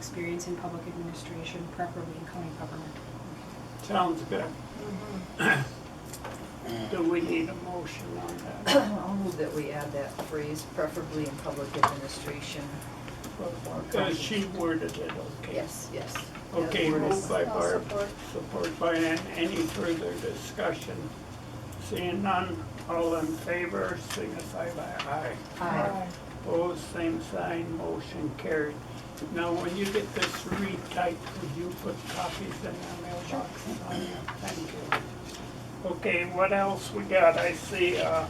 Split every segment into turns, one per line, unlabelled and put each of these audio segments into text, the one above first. experience in public administration, preferably in county government.
Sounds good. Do we need a motion on that?
I'll move that we add that phrase, preferably in public administration.
Uh, She worded it, okay.
Yes, yes. That
Okay,
word is-
moved by
I'll
Barb,
support.
support by Ann. Any further discussion? Seeing none, all in favor, signify by aye.
Aye.
Opposed, same sign, motion carried. Now, when you get this retyped, would you put copies in the mailbox on you? Thank you. Okay, what else we got? I see, uh,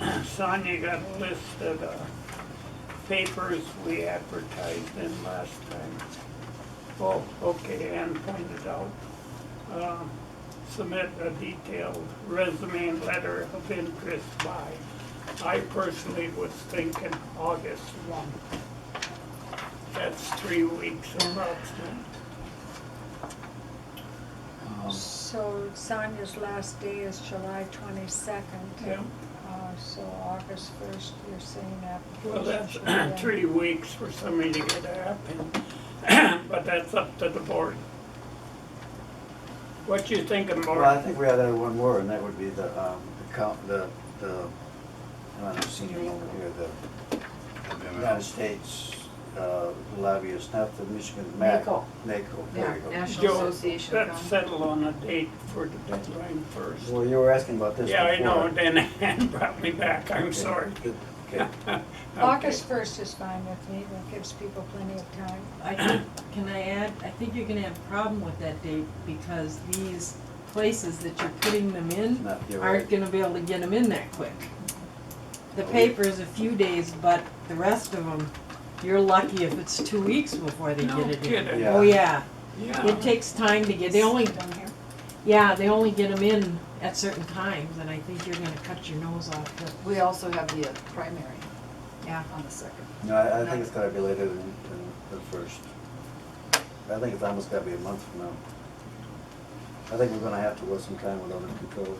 Sonia got listed, uh, papers we advertised in last time. Oh, okay, Ann pointed out. Um, Submit a detailed resume and letter of interest by, I personally was thinking August one. That's three weeks approximately.
So Sonia's last day is July twenty-second.
Yeah,
Uh, so August first, you're saying
well, that's
application should be in.
three weeks for somebody to get up and, but that's up to the board. What you thinking,
Well, I
Mark?
think we had that one more, and that would be the, um, the count, the, the, I don't know, senior over here, the United States uh, lobbyist, not the Michigan MAC.
NACO.
NACO, there
Yeah,
you go.
National
Joe,
Association of
let's
Counties.
settle on a date for the deadline first.
Well, you were asking about this
Yeah, I know,
before.
then Ann brought me back, I'm
Okay,
sorry.
good, Okay,
August first is fine with me, that gives people plenty of time.
I think, can I add, I think you're gonna have a problem with that date because these places that you're putting them in
No, you're
aren't
right.
gonna be able to get them in that quick. The paper's a few days, but the rest of them, you're lucky if it's two weeks before they
No Uh-huh.
get it in.
kidding.
Yeah.
Oh, yeah,
Yeah,
it takes time to get, they only,
Down here.
yeah, they only get them in at certain times and I think you're gonna cut your nose off, but,
We also have the uh, primary
yeah.
on the second.
no, I, I think it's gotta be later than, than the first. I think it's almost gotta be a month from now. I think we're gonna have to waste some time with other control.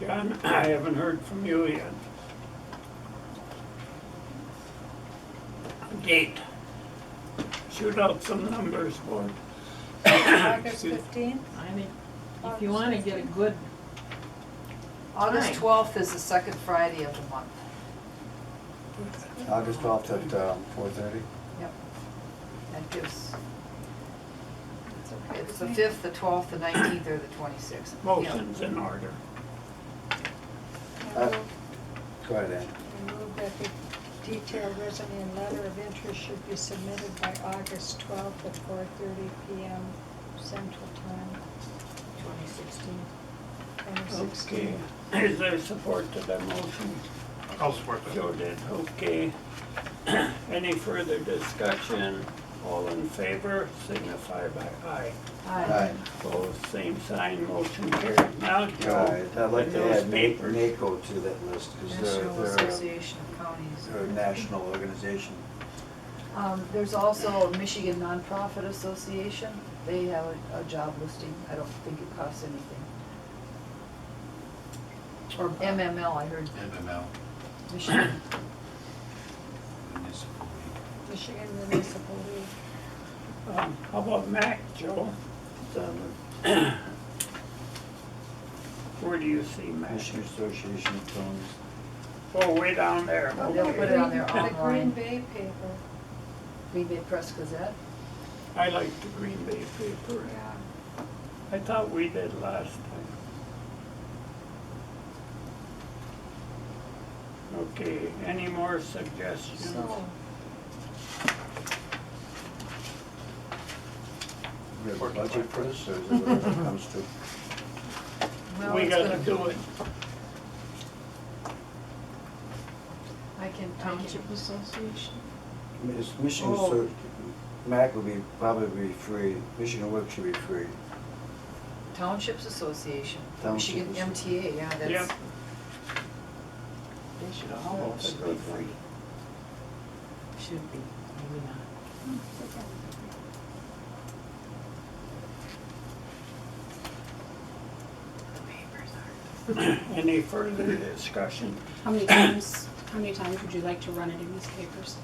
John, I haven't heard from you yet. Date. Shoot out some numbers, board.
August
Excuse-
fifteenth,
I mean, if you wanna get a good,
August
Fine.
twelfth is the second Friday of the month.
August twelfth at, um, four thirty?
Yep. That gives,
it's okay
it's the
with me.
fifth, the twelfth, the nineteenth, or the twenty-sixth.
Motion's in order.
I
Uh,
will-
Go ahead, Ann.
I move that the detailed resume and letter of interest should be submitted by August twelfth at four thirty PM Central Time,
twenty sixteen,
twenty
Okay.
sixteen.
Is there support to that motion?
I'll support that.
Joe did, okay. Any further discussion? All in favor, signify by aye.
Aye.
Opposed, same sign, motion carried. Now,
All
Joe,
right, I'd like to
those
add Na-
papers.
NACO to that list, because they're,
National
they're a-
Association of Counties.
they're a national organization.
Um, there's also Michigan Nonprofit Association. They have a, a job listing. I don't think it costs anything. Or MML, I heard
MML,
Michigan.
Municipal League.
Michigan Municipal League.
Um, How about Mac, Joe?
It's on
Where do you see
the
Mac?
Michigan Association of Towns.
Oh, way down there,
Oh, they'll put it
okay.
on there
The Green
online.
Bay paper,
Green Bay Press Gazette.
I like the Green Bay paper.
yeah.
I thought we did last time. Okay, any more suggestions?
So,
We have a budget for this, or is it whatever it comes to?
Well,
We
it's
gotta
gonna-
do it.
I can, I can,
township association.
It's Michigan,
Oh.
Associ- MAC would be, probably be free, Michigan Work should be free.
Townships Association,
Township
Michigan MTA, yeah, that's.
Yep.
They should
all be free.
Should be, maybe not.
Any further discussion?
How many times, how many times would you like to run it in these papers?